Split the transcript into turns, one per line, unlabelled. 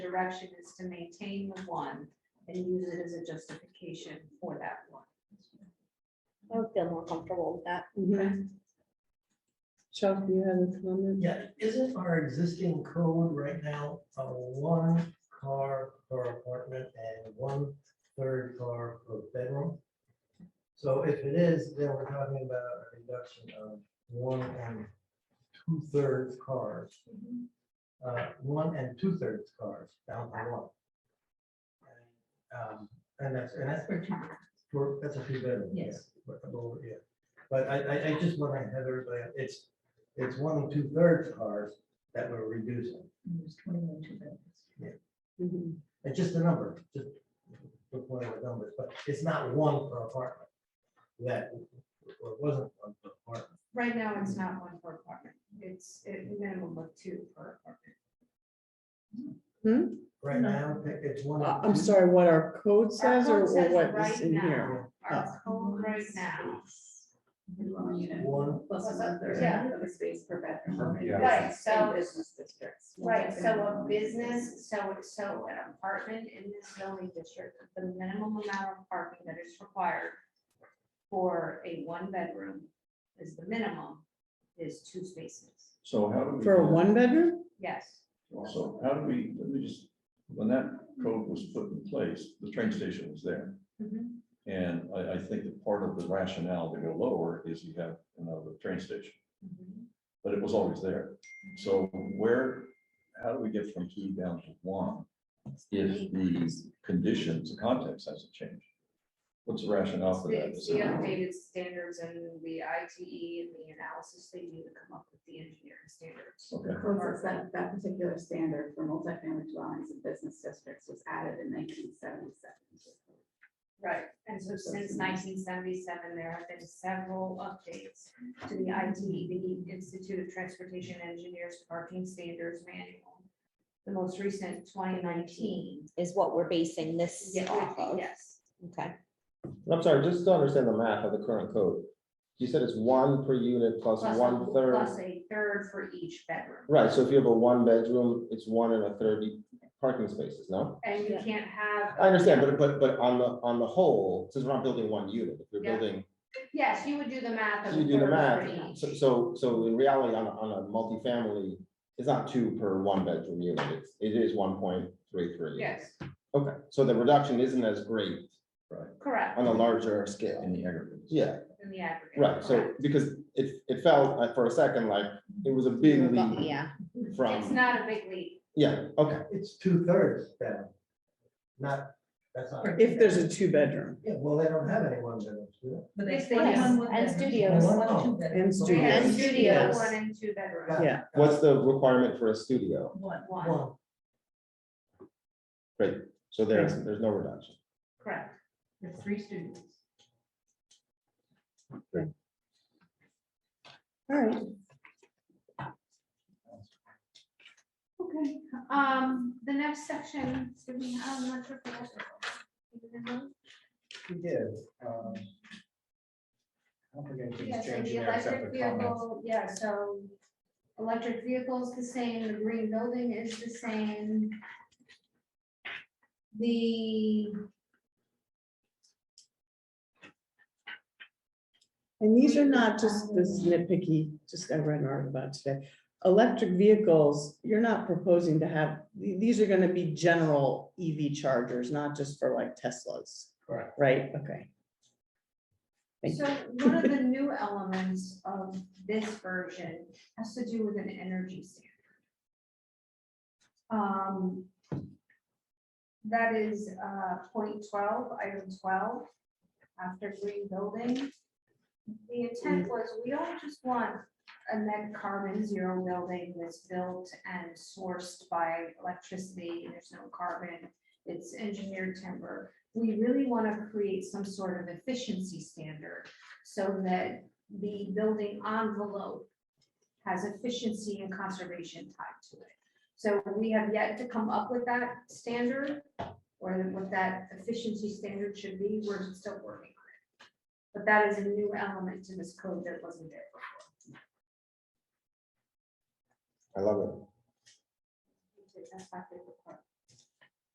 direction is to maintain the one and use it as a justification for that one.
I would feel more comfortable with that.
Mm-hmm. Chuck, you have a comment?
Yeah, isn't our existing code right now a one car per apartment and one third car per bedroom? So if it is, then we're talking about a reduction of one and two thirds cars. Uh, one and two thirds cars down to one. Um, And that's, and that's for two, for, that's a few bedroom. yeah,
Yes.
but above, yeah. But I, I, I just want to have everybody, it's, it's one and two thirds cars that we're reducing.
There's twenty-one two bedrooms.
Mhm.
It's just a number, just the point of the numbers, but it's not one per apartment. That, or it wasn't one per apartment.
Right now, it's not one per apartment. It's a minimum of two per apartment.
Right now, it- it's one.
Uh, I'm sorry, what our code says
Our
or
code
or
says
what
right
is in
now,
here?
Our code right now.
Dwelling unit.
One,
Plus one third
Yeah.
of a space per bedroom.
Yeah.
Right, so-
In Business districts.
Right, so a business, so, so an apartment in this zoning district, the minimum amount of parking that is required for a one-bedroom is the minimum, is two spaces.
So how do we?
For a one bedroom?
Yes,
So how do we, let me just, when that code was put in place, the train station was there.
Mhm.
And I, I think that part of the rationale to go lower is you have another train station,
Mm-hmm.
but it was always there. So where, how do we get from two down to one? If the conditions, the context hasn't changed? What's the rationale for that?
It's the uh, updated standards and the ITE and the analysis they do to come up with the engineering standards.
Okay,
Well, it's That, that particular standard for multifamily dwellings and business districts was added in nineteen seventy-seven.
Right, and so since nineteen seventy-seven, there have been several updates to the IT, the Institute of Transportation Engineers Parking Standards Manual. The most recent, twenty nineteen.
Is what we're basing this off of.
Yes.
Okay.
I'm sorry, just to understand the math of the current code. You said it's one per unit plus
Plus a-
one
Plus
third.
a third for each bedroom.
Right, so if you have a one bedroom, it's one and a third parking spaces, no?
And you can't have.
I understand, but but but on the on the whole, since we're not building one unit, if you're
Yeah.
building,
Yes, you would do the math. of
you
a
do the
third for
math. So
each.
so so in reality, on a on a multifamily, it's not two per one bedroom unit, it's it is one point three three.
Yes,
Okay, so the reduction isn't as great
correct,
on a larger scale.
in the aggregate.
Yeah,
in the aggregate.
Um, Right, so
correct.
because it, it felt like for a second like it was a big leap
Yeah,
It's
from,
not a big leap.
yeah, okay,
it's two thirds down. Not, that's not.
If there's a two bedroom
Yeah, well, they don't have any one bedrooms, do they?
they
But they
Yes, they still have have. one
and
Yes.
studios.
One and two
and
Three
studio,
and
Yes.
studio,
Yes.
one and two bedroom.
Yeah.
yeah.
what's the requirement for a studio?
One.
One,
One,
Great, so there's, there's no reduction.
correct. With three students.
All right.
Okay, um, the next section, do we have much of that?
We did. um, I don't think
Yeah,
anything's
so
changed
the
there except
electric
for comments.
vehicle, Oh, yeah, so electric vehicle's the same, the green building is the same. The,
And these are not just this nitpicky, just I read an article about today. Electric vehicles, you're not proposing to have, th- these are gonna be general EV chargers, not just for like Teslas.
Correct.
Right, okay. Thank
so one of the new elements of this version has to do with an energy standard. Um, that is, uh, point twelve, item twelve, after green building. The intent was, we don't just want a net carbon zero building that's built and sourced by electricity, there's no carbon, it's engineered timber. We really want to create some sort of efficiency standard so that the building envelope has efficiency and conservation tied to it. So we have yet to come up with that standard or what that efficiency standard should be. We're still working on it. But that is a new element to this code that wasn't there.
I love it.
That's my favorite part.